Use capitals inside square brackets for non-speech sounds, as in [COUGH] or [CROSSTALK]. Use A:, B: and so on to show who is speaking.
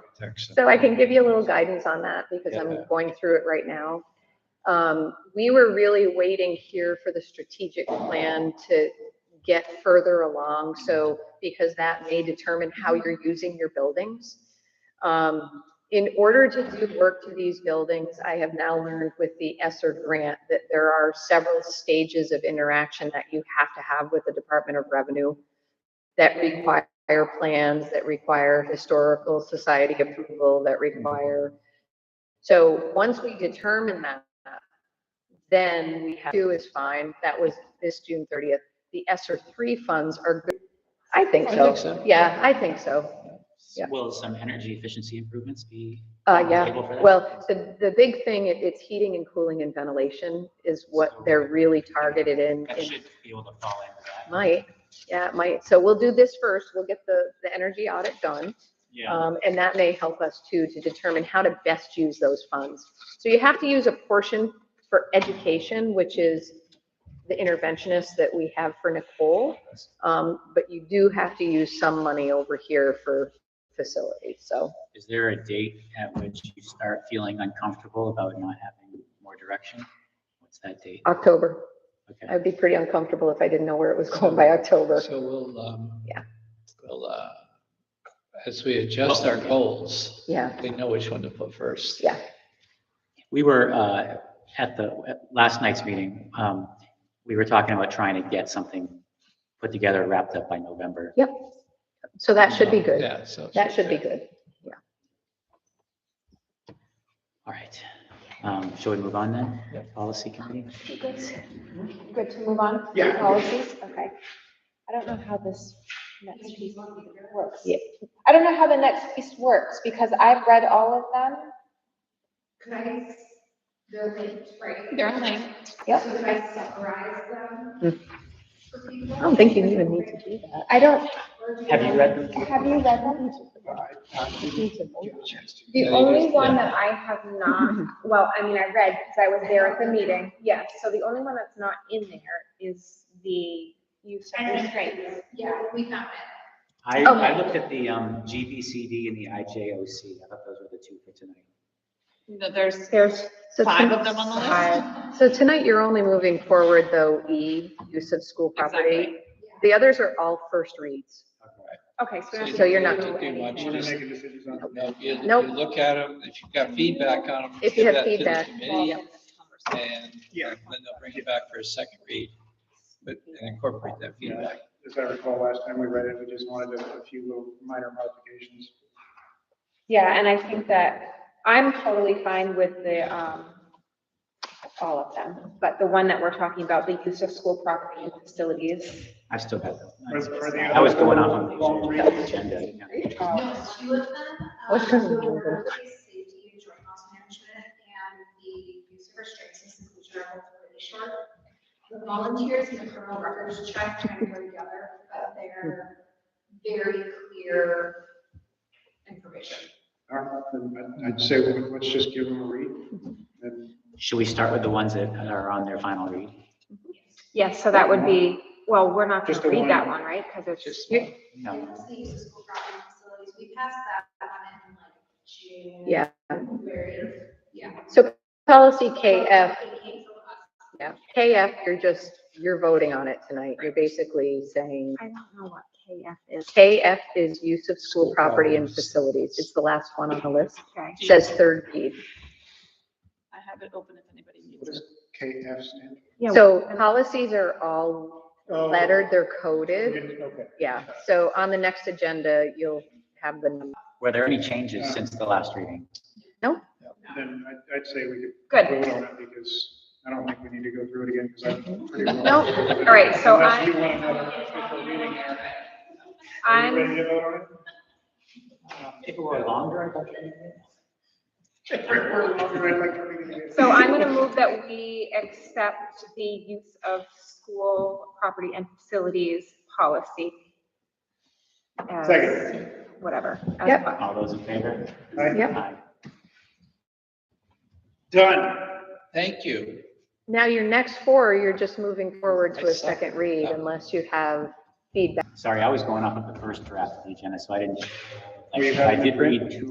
A: protection.
B: So I can give you a little guidance on that because
A: Yeah.
B: I'm going through it right now. Um, we were really waiting here for the strategic plan to get further along. So because that may determine how you're using your buildings. Um, in order to do work to these buildings, I have now learned with the ESSER grant that there are several stages of interaction that you have to have with the Department of Revenue that require plans, that require historical society approval, that require. So once we determine that, then we have to is fine. That was this June thirtieth. The ESSER three funds are good. I think
A: I think
B: so.
A: so.
B: Yeah, I think so. Yeah.
C: Will some energy efficiency improvements be?
B: Uh, yeah,
C: Able for that?
B: well, the, the big thing, it- it's heating and cooling and ventilation is what they're really targeted in.
C: That
B: in-
C: should be able to fall into that.
B: Might, yeah, it might. So we'll do this first. We'll get the, the energy audit done.
C: Yeah,
B: Um, and that may help us too, to determine how to best use those funds. So you have to use a portion for education, which is the interventionist that we have for Nicole. Um, but you do have to use some money over here for facilities, so.
C: is there a date at which you start feeling uncomfortable about not having more direction? What's that date?
B: Uh, October,
C: Okay,
B: I'd be pretty uncomfortable if I didn't know where it was going by October.
A: So we'll, um.
B: Yeah.
A: We'll, uh, as we adjust our goals.
B: Yeah.
A: We know which one to put first.
B: Yeah,
C: we were, uh, at the, at last night's meeting, um, we were talking about trying to get something put together, wrapped up by November.
B: so that should be good.
A: Yeah, so.
B: That should be good.
C: All right, um, shall we move on then?
A: Yeah.
C: Policy committee?
D: Good Good to move on? to
A: Yeah.
D: Policies, okay. I don't know how this next piece works.
B: Yeah.
D: I don't know how the next piece works because I've read all of them.
E: Could I, they're linked, right?
D: They're linked. Yep.
E: So could I summarize them? for people?
B: I don't think you even need to do that.
D: I don't,
E: Or do
C: Have you read them?
D: have you read them?
A: Uh,
E: The only one that I have
C: [LAUGHS]
E: not, well, I mean, I read because I was there at the meeting, yes, so the only one that's not in there is the use of restraints. Yeah, we have
C: I,
B: Okay.
C: I looked at the, um, GBCD and the IJOC. I thought those were the two for tonight.
F: There's
B: There's
F: five of them on the list.
B: list. So tonight, you're only moving forward, though, E, use of school property.
F: Exactly.
B: The others are all first reads.
E: Okay, so.
B: So you're not
A: doing
E: doing
A: much.
E: anything.
A: Just- No, if you- if
B: Nope.
A: you Look at them, if you've got feedback on them.
B: If you
A: give
B: have
A: that to the
B: feedback,
A: committee, And then they'll bring it back for a second read, but and incorporate that feedback.
G: As I recall, last time we read it, we just wanted a a few little minor modifications.
E: Yeah, and I think that I'm totally fine with the, um, all of them, but the one that we're talking about, the use of school property and facilities.
C: I've still got them.
G: Are- are they-
C: I was going off on the agenda. yeah.
E: um,
H: two of them.
B: What's
H: um,
B: going on?
H: were Safety and joint loss management and the use of restraints and seclusion are both really short. The volunteers and the criminal records check kind of go together, but they're very clear information.
G: Uh, and I'd- I'd say, well, let's just give them a read. And
C: Should we start with the ones that are on their final read?
E: Yes, so that would be, well, we're not
G: Just
E: gonna
G: the
E: read
G: one.
E: that one, right? Because it's
A: Just
E: just,
A: one.
H: And
C: No.
H: it's the use of school property and facilities, we passed that one in like June.
B: Yeah.
H: Very, yeah.
B: So policy KF,
H: It came from us.
B: yeah, KF, you're just, you're voting on it tonight. You're basically saying
E: I don't know what KF is.
B: KF is use of school
A: School
B: property and
A: properties.
B: facilities. It's the last one on the list.
E: Okay.
B: It Says third read.
F: I have it open if anybody needs
G: what
F: it.
G: does KF stand?
E: Yeah,
B: So policies are all
G: for?
B: lettered, they're coded.
G: Okay.
B: Yeah, so on the next agenda, you'll have the number.
C: Were there any changes since the last reading?
G: Then I'd, I'd say we could
E: Good.
G: vote on it because I don't think we need to go through it again because I'm pretty well.
E: Nope. All right, so I-
G: Unless you want another official reading there. Are
E: I'm,
G: you ready to vote on it?
C: If it were longer, I thought.
G: If we're longer, I'd like to read it again.
E: so I'm gonna move that we accept the use of school property and facilities policy. as
G: Second.
E: Whatever. as
B: Yep.
E: a-
C: All those in favor?
G: Aye.
B: Yep.
C: Aye.
G: Done.
A: Thank you.
B: Now, your next four, you're just moving forward to
A: I
B: a
A: saw
B: second read
A: that.
B: unless you have feedback.
C: Sorry, I was going off of the first draft of the agenda, so I didn't.
G: We
C: I
G: have
C: I
G: the
C: did
G: print?
C: read two